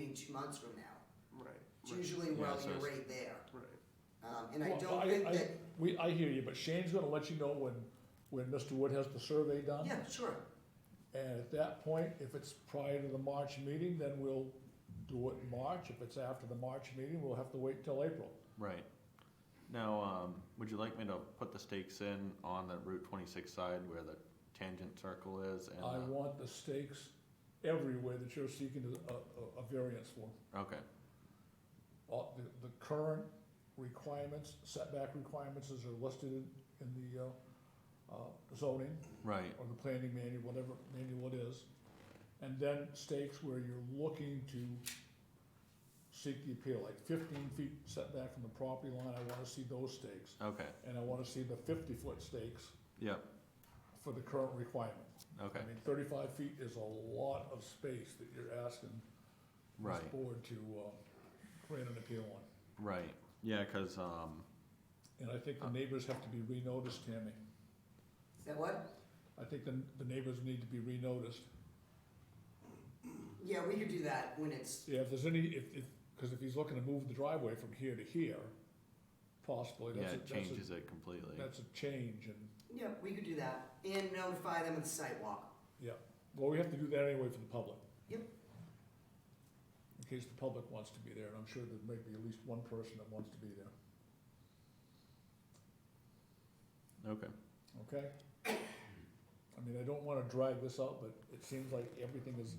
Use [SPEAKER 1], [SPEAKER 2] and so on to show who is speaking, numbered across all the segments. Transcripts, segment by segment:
[SPEAKER 1] meeting two months from now.
[SPEAKER 2] Right.
[SPEAKER 1] It's
[SPEAKER 2] right,
[SPEAKER 1] usually,
[SPEAKER 3] Yeah,
[SPEAKER 1] well,
[SPEAKER 3] so
[SPEAKER 1] you're
[SPEAKER 3] it's-
[SPEAKER 1] right there.
[SPEAKER 2] Right.
[SPEAKER 1] Um, and I
[SPEAKER 4] Well,
[SPEAKER 1] don't think
[SPEAKER 4] I-
[SPEAKER 1] that,
[SPEAKER 4] We, I hear you, but Shane's gonna let you know when, when Mr. Wood has the survey done.
[SPEAKER 1] yeah, sure,
[SPEAKER 4] And at that point, if it's prior to the March meeting, then we'll do it in March. If it's after the March meeting, we'll have to wait till April.
[SPEAKER 3] Right. Now, um, would you like me to put the stakes in on the Route twenty-six side where the tangent circle is and
[SPEAKER 4] I
[SPEAKER 3] the,
[SPEAKER 4] want the stakes everywhere that you're seeking a, a, a variance for.
[SPEAKER 3] okay,
[SPEAKER 4] All, the, the current requirements, setback requirements as are listed in, in the, uh, uh, zoning
[SPEAKER 3] right,
[SPEAKER 4] or the planning manual, whatever manual it is. And then stakes where you're looking to seek the appeal, like fifteen feet setback from the property line, I wanna see those stakes.
[SPEAKER 3] okay,
[SPEAKER 4] And I wanna see the fifty-foot stakes
[SPEAKER 3] yep,
[SPEAKER 4] for the current requirement.
[SPEAKER 3] okay,
[SPEAKER 4] I mean, thirty-five feet is a lot of space that you're asking
[SPEAKER 3] right,
[SPEAKER 4] this board to, uh, grant an appeal on.
[SPEAKER 3] right. Yeah, cause, um,
[SPEAKER 4] And I think the neighbors have to be renoticed, Tammy.
[SPEAKER 1] is that what?
[SPEAKER 4] I think the, the neighbors need to be renoticed.
[SPEAKER 1] Yeah, we could do that when it's,
[SPEAKER 4] Yeah, if there's any, if, if, cause if he's looking to move the driveway from here to here, possibly,
[SPEAKER 3] yeah,
[SPEAKER 4] that's a,
[SPEAKER 3] it
[SPEAKER 4] that's a,
[SPEAKER 3] changes it completely.
[SPEAKER 4] that's a change and,
[SPEAKER 1] yeah, we could do that, and notify them of the sidewalk.
[SPEAKER 4] yeah. Well, we have to do that anyway for the public.
[SPEAKER 1] Yep.
[SPEAKER 4] In case the public wants to be there, and I'm sure there may be at least one person that wants to be there,
[SPEAKER 3] Okay,
[SPEAKER 4] okay? I mean, I don't wanna drag this out, but it seems like everything is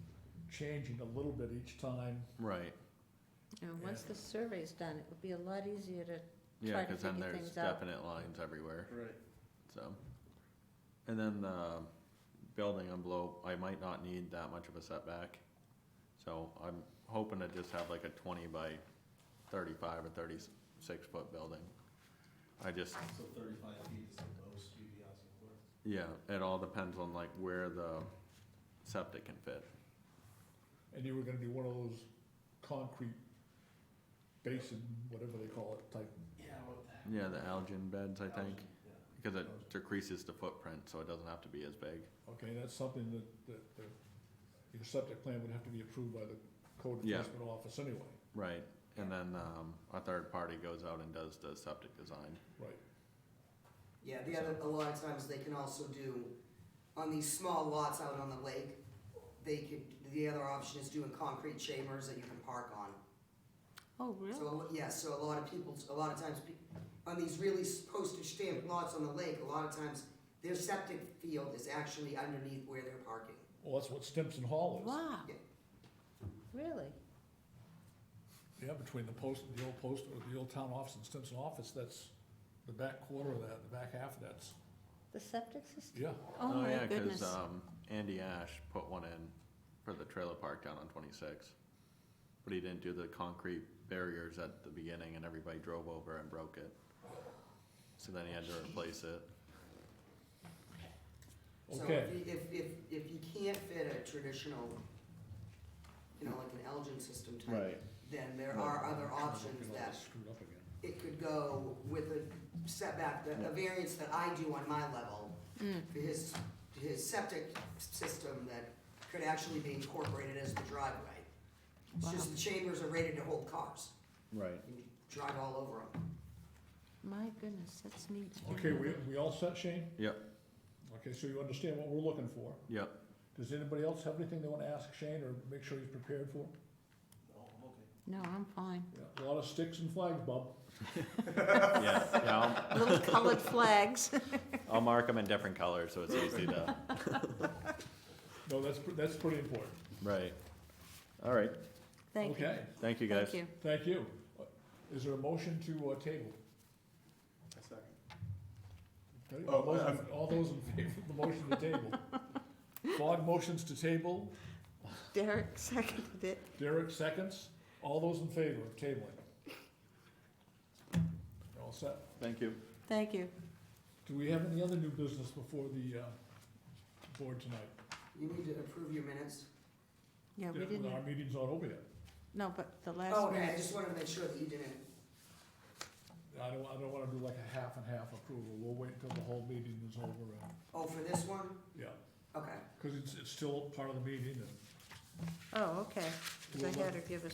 [SPEAKER 4] changing a little bit each time.
[SPEAKER 3] right.
[SPEAKER 5] Now, once the survey's done, it would be a lot easier to,
[SPEAKER 3] Yeah,
[SPEAKER 5] Try to
[SPEAKER 3] cause then
[SPEAKER 5] figure
[SPEAKER 3] there's
[SPEAKER 5] things out.
[SPEAKER 3] definite lines everywhere,
[SPEAKER 2] Right.
[SPEAKER 3] so. And then the building envelope, I might not need that much of a setback. So I'm hoping to just have like a twenty by thirty-five or thirty-six foot building. I just,
[SPEAKER 6] So thirty-five feet is the most you'd be asking for?
[SPEAKER 3] Yeah, it all depends on like where the septic can fit.
[SPEAKER 4] And you were gonna be one of those concrete basin, whatever they call it, type
[SPEAKER 6] Yeah, what the
[SPEAKER 3] Yeah, the algin beds, I think,
[SPEAKER 6] Yeah.
[SPEAKER 3] because it decreases the footprint, so it doesn't have to be as big.
[SPEAKER 4] Okay, that's something that, that, that your septic plan would have to be approved by the code
[SPEAKER 3] Yeah.
[SPEAKER 4] enforcement office anyway,
[SPEAKER 3] Right, and then, um, a third party goes out and does the septic design.
[SPEAKER 4] right?
[SPEAKER 1] Yeah, the other, a lot of times they can also do, on these small lots out on the lake, they could, the other option is doing concrete chambers that you can park on.
[SPEAKER 5] oh, really?
[SPEAKER 1] So, a lo-
[SPEAKER 4] Hmm.
[SPEAKER 1] yeah, so a lot of people, a lot of times, pe- on these really s- postage stamp lots on the lake, a lot of times, their septic field is actually underneath where they're parking.
[SPEAKER 4] Well, that's what Stimson Hall is.
[SPEAKER 5] Wow,
[SPEAKER 1] Yeah.
[SPEAKER 5] really?
[SPEAKER 4] Yeah, between the post, the old post, or the old town office and Stimson office, that's the back quarter of that, the back half of that's,
[SPEAKER 5] The septic system?
[SPEAKER 4] yeah.
[SPEAKER 5] Oh, my
[SPEAKER 3] yeah,
[SPEAKER 5] goodness.
[SPEAKER 3] Cause, um, Andy Ash put one in for the trailer park down on twenty-six. But he didn't do the concrete barriers at the beginning and everybody drove over and broke it. So then he had to replace it.
[SPEAKER 1] So
[SPEAKER 4] Okay.
[SPEAKER 1] if, you- if, if, if you can't fit a traditional, you know, like an Elgin system type, then there are other options
[SPEAKER 4] Get all
[SPEAKER 1] that
[SPEAKER 4] this Screwed up again.
[SPEAKER 1] it could go with a setback, the, a variance that I do on my level for his, his septic system that could actually be incorporated as the driveway. It's just the chambers are rated to hold cars,
[SPEAKER 3] Right.
[SPEAKER 1] you can drive all over them.
[SPEAKER 5] My goodness, that's neat.
[SPEAKER 4] Okay, we, we all set, Shane?
[SPEAKER 3] Yep,
[SPEAKER 4] Okay, so you understand what we're looking for.
[SPEAKER 3] yep,
[SPEAKER 4] Does anybody else have anything they wanna ask Shane or make sure he's prepared for?
[SPEAKER 6] No, I'm okay.
[SPEAKER 5] No, I'm fine.
[SPEAKER 4] Yeah, A lot of sticks and flags, Bob.
[SPEAKER 3] yeah, yeah, I'll-
[SPEAKER 5] Little colored flags.
[SPEAKER 3] I'll mark them in different colors so it's easy to.
[SPEAKER 4] No, that's, pre- that's pretty important.
[SPEAKER 3] Right. All right.
[SPEAKER 5] Thank you.
[SPEAKER 4] Okay,
[SPEAKER 3] Thank you guys.
[SPEAKER 5] Thank you.
[SPEAKER 4] thank you. Is there a motion to, uh, table?
[SPEAKER 2] A second.
[SPEAKER 4] Okay,
[SPEAKER 2] Oh,
[SPEAKER 4] all those in-
[SPEAKER 2] um,
[SPEAKER 4] All those in favor of the motion to table? Fogg motions to table,
[SPEAKER 5] Derek seconded it.
[SPEAKER 4] Derek seconds, all those in favor of tabling? You're all set.
[SPEAKER 3] Thank you.
[SPEAKER 5] Thank you.
[SPEAKER 4] Do we have any other new business before the, uh, board tonight?
[SPEAKER 1] You need to approve your minutes.
[SPEAKER 5] Yeah, we
[SPEAKER 4] Yeah,
[SPEAKER 5] didn't,
[SPEAKER 4] Our meeting's not over yet.
[SPEAKER 5] no, but the
[SPEAKER 1] Oh,
[SPEAKER 5] last
[SPEAKER 1] okay, I
[SPEAKER 5] minute,
[SPEAKER 1] just wanted to make sure that you didn't,
[SPEAKER 4] I don't, I don't wanna do like a half and half approval, we'll wait until the whole meeting is over, and,
[SPEAKER 1] oh, for this one?
[SPEAKER 4] yeah,
[SPEAKER 1] Okay.
[SPEAKER 4] cause it's, it's still part of the meeting, and
[SPEAKER 5] oh, okay, 'cause
[SPEAKER 4] We'll uh,
[SPEAKER 5] I
[SPEAKER 4] let-
[SPEAKER 5] had her give us